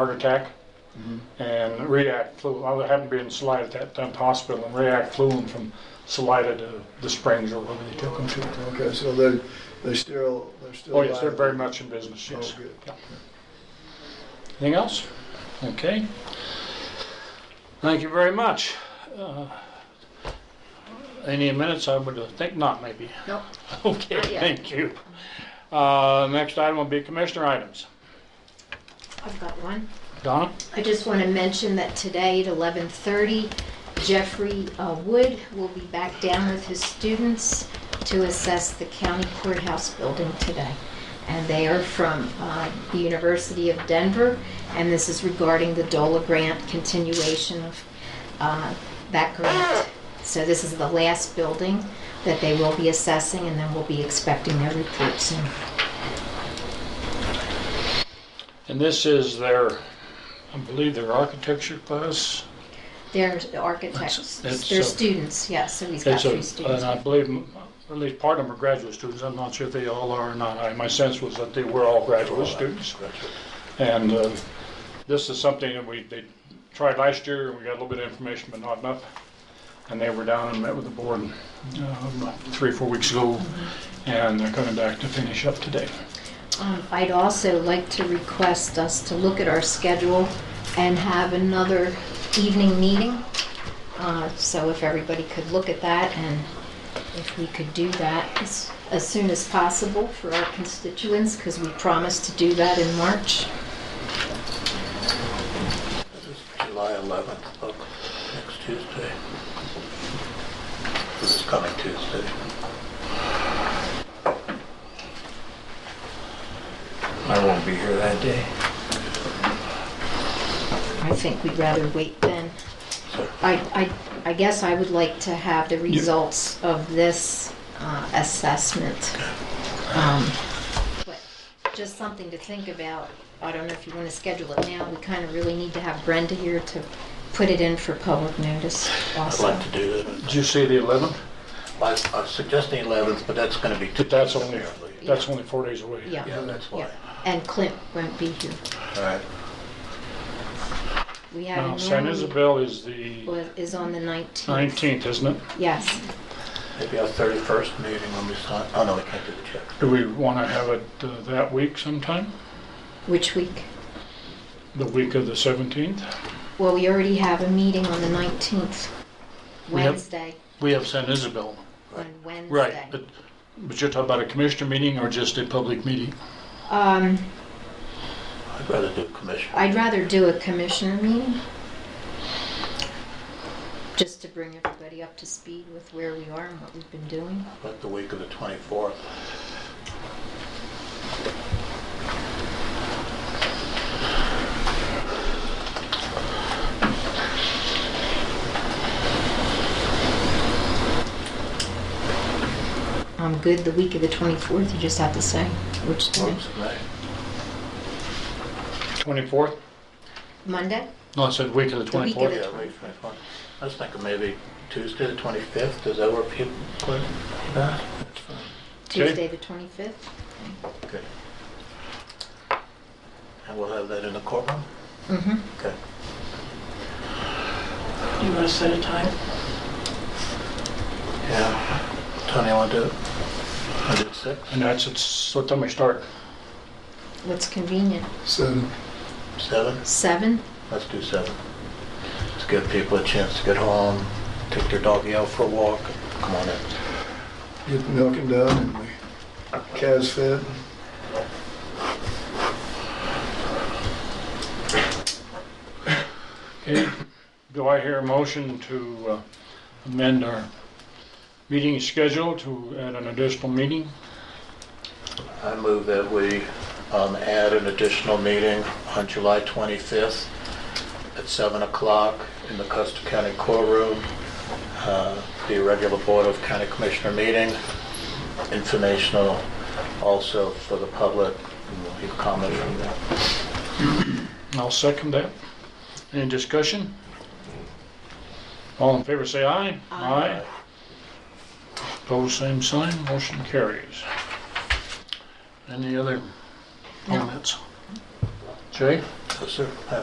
heart attack. And React flew, I happened to be in Salida at that time, the hospital, and React flew him from Salida to the Springs or wherever they took him to. Okay, so they, they still, they're still. Oh, yes, they're alive. very much in business, yes. Oh, good. Yeah. Anything else? Okay. Thank you very much. Uh, Any minutes, I would uh, think not, maybe. Nope. Okay, Not yet. thank you. Uh, Next item will be commissioner items. I've got one. Donna? I just want to mention that today at 11:30, Jeffrey uh, Wood will be back down with his students to assess the county courthouse building today. And they are from uh, the University of Denver, and this is regarding the DOLA grant, continuation of uh, that grant. So this is the last building that they will be assessing, and then we'll be expecting their report soon. And this is their, I believe their architecture class. They're architects, that's they're a- students, yes, so he's got It's a- three students. And I believe, m- at least part of them are graduate students. I'm not sure if they all are or not. I- My sense was that they were all graduate students. And uh, this is something that we, they tried last year, and we got a little bit of information, but not enough. And they were down and met with the board um, three, or four weeks ago, and they're coming back to finish up today. Um, I'd also like to request us to look at our schedule and have another evening meeting. Uh, So if everybody could look at that and if we could do that as as soon as possible for our constituents, because we promised to do that in March. July 11th, look, next Tuesday. This is coming Tuesday. I won't be here that day. I think we'd rather wait then. Sure. I, I, I guess I would like to have the results of this uh, assessment. Um, but Just something to think about. I don't know if you want to schedule it now. We kind of really need to have Brenda here to put it in for public notice I'd also. like to do it. Did you say the 11th? I I was suggesting 11th, but that's going to be. But that's Tuesday, only, apparently. that's only four days away. Yeah. Yeah, that's why. Yeah. And Clint won't be here. All right. We had Now, a San normal Isabel is the was- is on the 19th. 19th, isn't it? Yes. Maybe our 31st meeting when we sign, oh no, we can't do the check. Do we want to have it uh, that week sometime? Which week? The week of the 17th? Well, we already have a meeting on the 19th, We have- Wednesday, We have San Isabel. on Wednesday. Right, but, but you're talking about a commissioner meeting or just a public meeting? Um, I'd rather do commission. I'd rather do a commissioner meeting. Just to bring everybody up to speed with where we are and what we've been doing. But the week of the 24th, I'm good the week of the 24th, you just have to say which day. works for me. Mm-hmm. 24th? Monday? No, I said week of the The week of 24th. the- Yeah, week 24th. I was thinking maybe Tuesday, the 25th, does that work for you, Clint? Nah, that's fine. Okay. Tuesday, the 25th? Okay. And we'll have that in the courtroom? Mm-hmm. Okay. Do you want to set a time? Yeah. Tony, want to do it? I did six. And that's, it's, what time we start? What's convenient? So, Seven? Seven? Let's do seven. Let's give people a chance to get home, take their doggy out for a walk. Come on in. get the milking done and the calves fed. Okay, do I hear a motion to uh, amend our meeting schedule to add an additional meeting? I move that we um, add an additional meeting on July 25th at 7 o'clock in the Custer County Courtroom, uh, the regular Board of County Commissioner meeting, informational also for the public, and we'll hear comment from them. I'll second that. Any discussion? All in favor, say aye. Aye. Opposed, same sign, motion carries. Any other No. Oh, comments? Jay? Yes, sir.